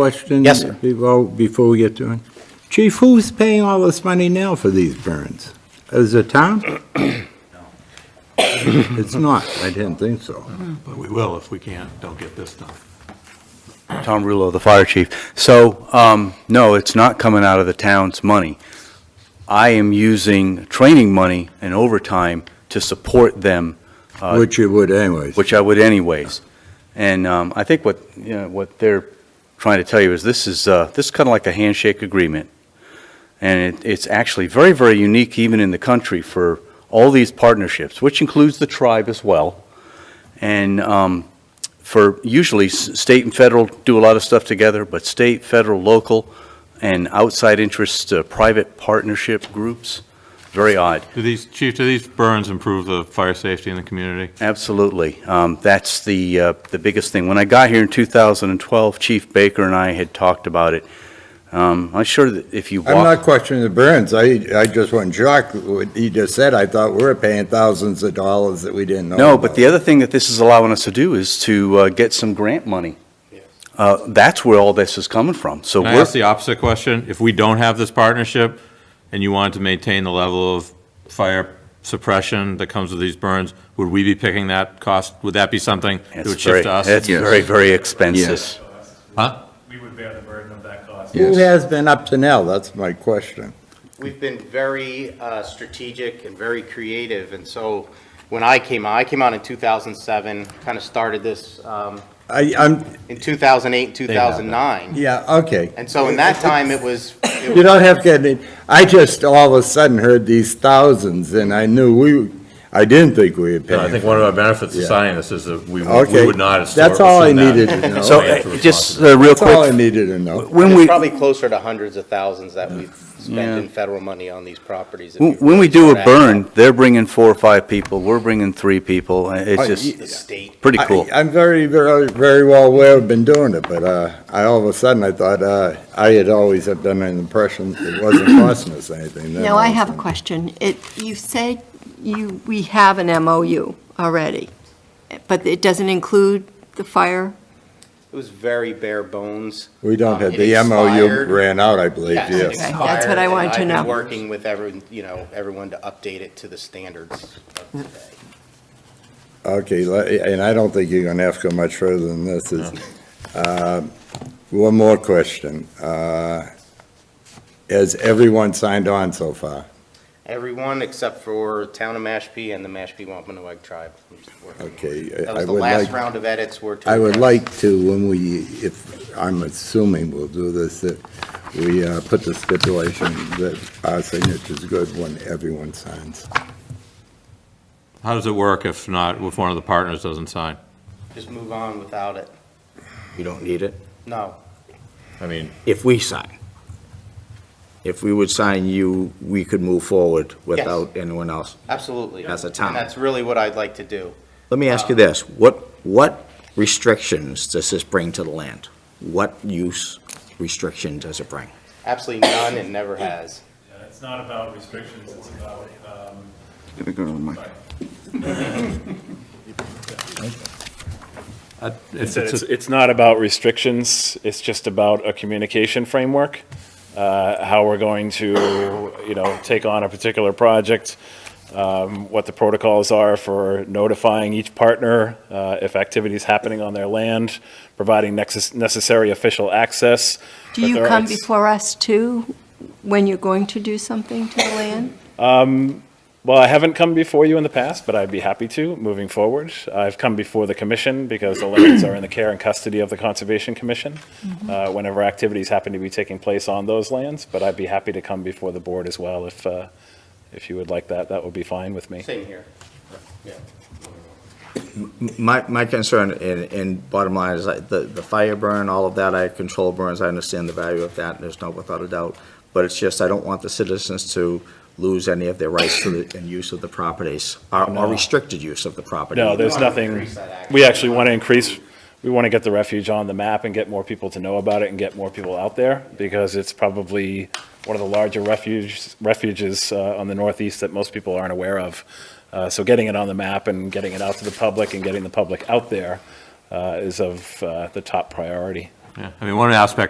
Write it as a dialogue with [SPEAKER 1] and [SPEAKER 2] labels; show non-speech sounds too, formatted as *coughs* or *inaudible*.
[SPEAKER 1] Question?
[SPEAKER 2] Yes, sir.
[SPEAKER 1] Before, before we get to it. Chief, who's paying all this money now for these burns? Is it
[SPEAKER 2] *clears throat*
[SPEAKER 1] town? It's not, I didn't think so.
[SPEAKER 3] But we will if we can't, don't get this done.
[SPEAKER 2] Tom Rulo, the fire chief. So, um, no, it's not coming out of the town's money. I am using training money and overtime to support them, uh,
[SPEAKER 1] Which you would anyways.
[SPEAKER 2] which I would anyways. And um, I think what, you know, what they're trying to tell you is this is, uh, this is kind of like a handshake agreement. And it, it's actually very, very unique even in the country for all these partnerships, which includes the tribe as well. And um, for usually s- state and federal do a lot of stuff together, but state, federal, local, and outside interests, uh, private partnership groups, very odd.
[SPEAKER 3] Do these, chief, do these burns improve the fire safety in the community?
[SPEAKER 2] Absolutely. Um, That's the, uh, the biggest thing. When I got here in 2012, Chief Baker and I had talked about it. Um, I'm sure that if you
[SPEAKER 1] I'm not
[SPEAKER 2] walk,
[SPEAKER 1] questioning the burns, I, I just wasn't shocked with what he just said, I thought we were paying thousands of dollars that we didn't know
[SPEAKER 2] no, but the
[SPEAKER 1] about.
[SPEAKER 2] other thing that this is allowing us to do is to uh, get some grant money. Uh, That's where all this is coming from. So
[SPEAKER 3] Can I
[SPEAKER 2] we're,
[SPEAKER 3] ask the opposite question? If we don't have this partnership and you wanted to maintain the level of fire suppression that comes with these burns, would we be picking that cost? Would that be something that
[SPEAKER 2] it's
[SPEAKER 3] would shift
[SPEAKER 2] very,
[SPEAKER 3] to us?
[SPEAKER 2] it's very, very expensive.
[SPEAKER 1] Yes.
[SPEAKER 3] Huh?
[SPEAKER 4] We would bear the burden of that cost.
[SPEAKER 1] Who has been up to now, that's my question.
[SPEAKER 5] We've been very uh, strategic and very creative, and so when I came out, I came out in 2007, kind of started this um,
[SPEAKER 1] I, I'm,
[SPEAKER 5] in 2008, 2009.
[SPEAKER 1] yeah, okay.
[SPEAKER 5] And so in that time, it was, it
[SPEAKER 1] You
[SPEAKER 5] was-
[SPEAKER 1] don't have to get any, I just all of a sudden heard these thousands, and I knew we, I didn't think we had paid.
[SPEAKER 4] I think one of our benefits of signing this is that we would we
[SPEAKER 1] Okay.
[SPEAKER 4] would not. historically
[SPEAKER 1] That's all I
[SPEAKER 4] send that.
[SPEAKER 1] needed to know.
[SPEAKER 2] So
[SPEAKER 4] We have to
[SPEAKER 2] uh,
[SPEAKER 4] respond
[SPEAKER 2] just
[SPEAKER 4] to
[SPEAKER 2] uh, real
[SPEAKER 1] That's all I
[SPEAKER 2] quick,
[SPEAKER 1] needed to know.
[SPEAKER 2] when
[SPEAKER 5] it's
[SPEAKER 2] we,
[SPEAKER 5] probably closer to hundreds of thousands that we've
[SPEAKER 2] Yeah.
[SPEAKER 5] spent in federal money on these properties. if
[SPEAKER 2] when
[SPEAKER 5] you
[SPEAKER 2] when we
[SPEAKER 5] really
[SPEAKER 2] do a
[SPEAKER 5] start adding up
[SPEAKER 2] burn, they're bringing four or five people, we're bringing three people. Uh,
[SPEAKER 1] Oh,
[SPEAKER 5] The
[SPEAKER 2] It's just
[SPEAKER 5] state.
[SPEAKER 2] pretty cool.
[SPEAKER 1] I- I'm very, very, very well aware I've been doing it, but uh, I, all of a sudden, I thought, uh, I had always have done an impression it wasn't *coughs* costing us anything. Then
[SPEAKER 6] Now, I
[SPEAKER 1] all of a
[SPEAKER 6] have a
[SPEAKER 1] sudden-
[SPEAKER 6] question. It, you said you, we have an MOU already, but it doesn't include the fire?
[SPEAKER 5] It was very bare bones.
[SPEAKER 1] We don't have,
[SPEAKER 5] It
[SPEAKER 1] the MOU
[SPEAKER 5] expired.
[SPEAKER 1] ran out, I believe,
[SPEAKER 5] Yes, it
[SPEAKER 1] yes.
[SPEAKER 6] Okay. that's what
[SPEAKER 5] expired,
[SPEAKER 6] I
[SPEAKER 5] and
[SPEAKER 6] wanted to
[SPEAKER 5] I've been
[SPEAKER 6] know.
[SPEAKER 5] working with everyone, you know, everyone to update it to the standards of today.
[SPEAKER 1] Okay, le- and I don't think you're going to have to go much further than this. is- Uh, One more question. Uh, Has everyone signed on so far?
[SPEAKER 5] Everyone except for Town of Mashpee and the Mashpee Wampanoag Tribe. I'm just working on it.
[SPEAKER 1] Okay. I-
[SPEAKER 5] That
[SPEAKER 1] I
[SPEAKER 5] was the
[SPEAKER 1] would
[SPEAKER 5] last
[SPEAKER 1] like-
[SPEAKER 5] round of edits were to.
[SPEAKER 1] I would
[SPEAKER 5] address.
[SPEAKER 1] like to, when we, if, I'm assuming we'll do this, that we uh, put the stipulation that our signature's good when everyone signs.
[SPEAKER 3] How does it work if not, if one of the partners doesn't sign?
[SPEAKER 5] Just move on without it.
[SPEAKER 7] You don't need it,
[SPEAKER 5] No,
[SPEAKER 4] I mean,
[SPEAKER 7] if we sign. If we would sign you, we could move forward without anyone else.
[SPEAKER 5] absolutely.
[SPEAKER 7] As a town.
[SPEAKER 5] And that's really what I'd like to do.
[SPEAKER 7] Let me ask you this, what, what restrictions does this bring to the land? What use restriction does it bring?
[SPEAKER 5] Absolutely none and never has.
[SPEAKER 4] yeah, it's not about restrictions, it's about, um,
[SPEAKER 3] It's,
[SPEAKER 8] It's, it's not about restrictions, it's just about a communication framework, uh, how we're going to, you know, take on a particular project, um, what the protocols are for notifying each partner uh, if activity's happening on their land, providing necess- necessary official access.
[SPEAKER 6] Do
[SPEAKER 8] But
[SPEAKER 6] you
[SPEAKER 8] there are-
[SPEAKER 6] come
[SPEAKER 8] it's-
[SPEAKER 6] before us too, when you're going to do something to the land?
[SPEAKER 8] Um, Well, I haven't come before you in the past, but I'd be happy to moving forward. I've come before the commission because the lands are in the care and custody of the Conservation Commission uh, whenever activities happen to be taking place on those lands, but I'd be happy to come before the board as well if, uh, if you would like that, that would be fine with me.
[SPEAKER 5] Same here.
[SPEAKER 7] My, my concern, and, and bottom line, is like the, the fire burn, all of that, I control burns, I understand the value of that, there's no, without a doubt. But it's just, I don't want the citizens to lose any of their rights to the, and use of the properties, or or restricted use of the property.
[SPEAKER 8] No, there's
[SPEAKER 5] wanna
[SPEAKER 8] nothing,
[SPEAKER 5] increase that access.
[SPEAKER 8] we actually want to increase, we want to get the refuge on the map and get more people to know about it and get more people out there because it's probably one of the larger refuges, refuges uh, on the northeast that most people aren't aware of. Uh, So getting it on the map and getting it out to the public and getting the public out there uh, is of uh, the top priority.
[SPEAKER 3] I mean, one aspect